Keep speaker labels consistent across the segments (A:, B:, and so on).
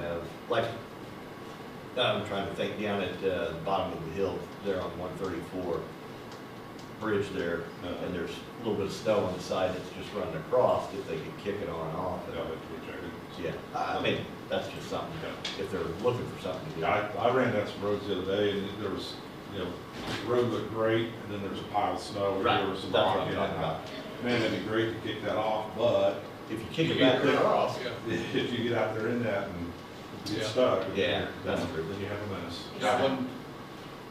A: Uh, like, I'm trying to think, down at uh, the bottom of the hill there on one thirty-four, bridge there, uh,
B: Uh-huh.
A: and there's a little bit of snow on the side that's just running across, if they could kick it on and off.
B: that would be rejected.
A: Yeah, I I mean, that's just something, if they're looking for something to do.
B: Yeah, I, I ran down some roads the other day, and there was, you know, the road looked great, and then there was a pile of snow, and
A: Right,
B: there was some
A: that's what
B: rock
A: I'm
B: in it.
A: talking
B: and I-
A: about.
B: Man, that'd be great to kick that off, but
A: If you kick it
C: You
A: back
C: get
A: across,
C: Yeah.
B: if you get out there in that and get
C: Yeah.
B: stuck.
A: Yeah, that's
B: then-
A: true.
B: Then you have a mess.
C: Got one,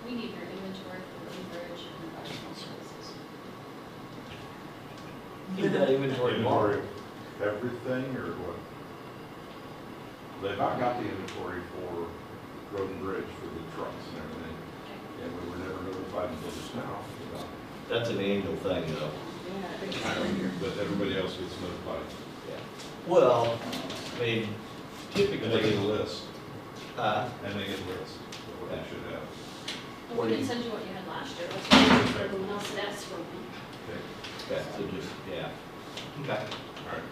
D: We need your inventory for Lee Bridge and professional services.
A: do that inventory tomorrow.
B: Inventory, of everything or what? They've not got the inventory for road and bridge for the trucks and everything, and we were never notified until just now. about it.
A: That's an annual thing, though.
B: But everybody else gets notified.
A: Yeah. Well, I mean,
B: And they get a
A: typically,
B: list,
A: uh,
B: and they get a list of what they should have.
D: Well, we can send you what you had last year, let's wait for everyone else that asked for it.
B: Okay,
A: yeah, so just, yeah. Okay.
B: all right.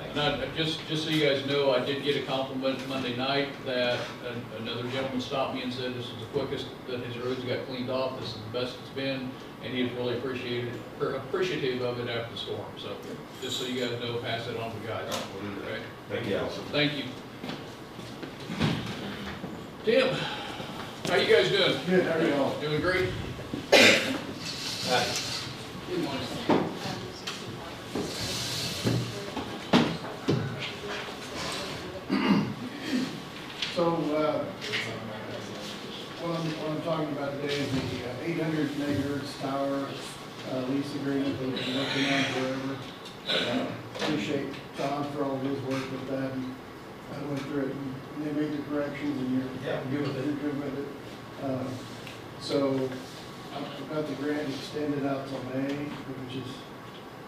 A: Thanks.
C: and I, I just, just so you guys know, I did get a compliment Monday night that an- another gentleman stopped me and said, this is the quickest that his roads got cleaned off, this is the best it's been, and he was really appreciated, or appreciative of it after the storm, so, just so you guys know, pass that on to the guys,
B: We'll do that.
C: okay?
B: Thank you.
A: Yeah.
C: Thank you. Tim, how you guys doing?
E: Good, how are y'all?
C: Doing great?
A: Uh,
C: Good morning.
E: So, uh, what I'm, what I'm talking about today is the uh, eight hundred megahertz tower uh, lease agreement that we've been working on forever. Uh, Appreciate Tom for all of his work with that. and I went through it, and they made the corrections, and you're
A: Yeah,
E: good with it. You're good with it. Uh, So, I've got the grant extended out till May, which is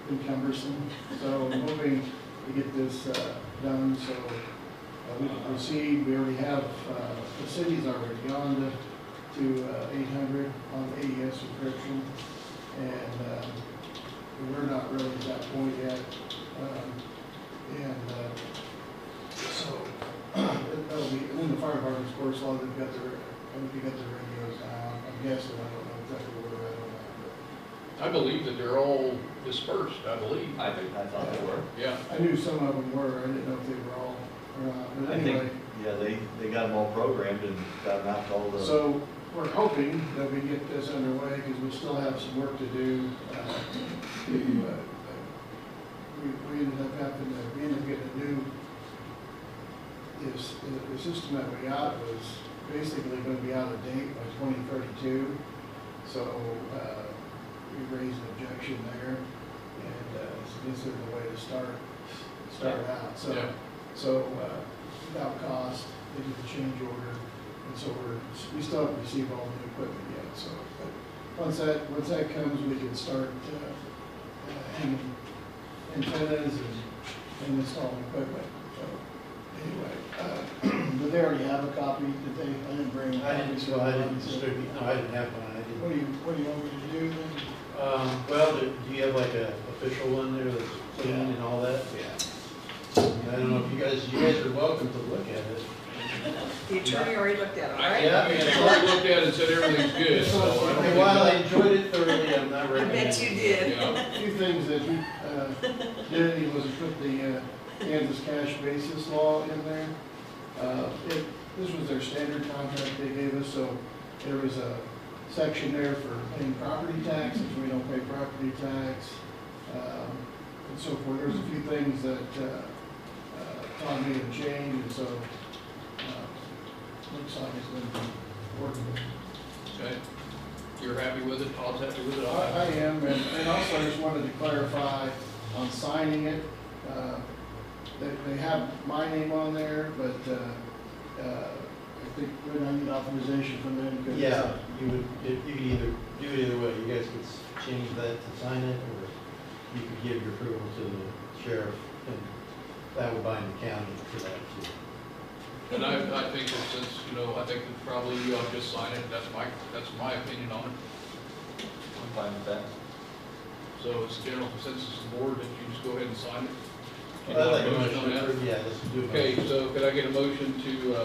E: been cumbersome. So, I'm hoping to get this uh, done, so uh, We can proceed, we already have, uh, the city's already on the, to uh, 800 on the AES subscription. And uh, we're not really at that point yet. Um, And uh, so that'll be, and then the fire department, of course, all they've got their, they've got their radios down. I'm guessing, I don't know exactly where they're at on that, but
C: I believe that they're all dispersed, I believe.
A: I, I thought they were.
C: Yeah,
E: I knew some of them were, I didn't know if they were all or not. But
A: I think,
E: anyway,
A: yeah, they, they got them all programmed and got them out to all the.
E: So we're hoping that we get this underway because we still have some work to do. uh, to, uh, We, we ended up having to, we ended up getting a new, this, the system that we got was basically going to be out of date by twenty thirty-two. So uh, we raised an objection there and uh, so this is the way to start, start out.
C: Yeah.
E: So, so uh, without cost, they did the change order. And so we're, we still haven't received all the equipment yet, so, but once that, once that comes, we can start, uh, uh, hanging antennas and, and installing equipment, so, anyway. uh, But they already have a copy, did they, I didn't bring. a
F: I
E: copy,
F: didn't,
E: so
F: well, I didn't
E: so-
F: distribute, no, I didn't have one, I
E: What do
F: didn't.
E: you, what do you want me to do then?
F: Um, well, do do you have like a official one there that's clean and all that?
E: Yeah.
F: I don't know if you guys, you guys are welcome to look at it.
G: The attorney already looked at it, all right?
C: I mean, I already looked at it and said everything's good, so. I don't
F: Okay,
C: think-
F: While I enjoyed it thoroughly, I'm not
G: I
F: recommending.
G: bet you
F: it.
G: did.
C: Yeah,
E: A few things that you, uh, did, he was put the, uh, Kansas cash basis law in there. Uh, it, this was their standard contract they gave us, so there was a section there for paying property tax, if we don't pay property tax, um, and so forth. There's a few things that, uh, uh, Tom made a change, and so, uh, looks like it's been working.
C: okay. You're happy with it, Todd's happy with it,
E: I
C: all right.
E: I am, and and also I just wanted to clarify on signing it, uh, they, they have my name on there, but uh, uh, I think we're gonna need authorization from them. because-
F: Yeah, you would, if you could either, do it either way, you guys could s- change that to sign it, or you could give your approval to the sheriff, and that would bind the county to that too.
C: And I, I think that since, you know, I think that probably you ought to just sign it, that's my, that's my opinion on it.
A: I'm fine with that.
C: So it's general consensus of the board that you just go ahead and sign it.
F: Well, I'd like a
C: Motion on
F: motion to
C: that?
F: approve, yeah, let's do a motion.
C: Okay, so could I get a motion to, uh,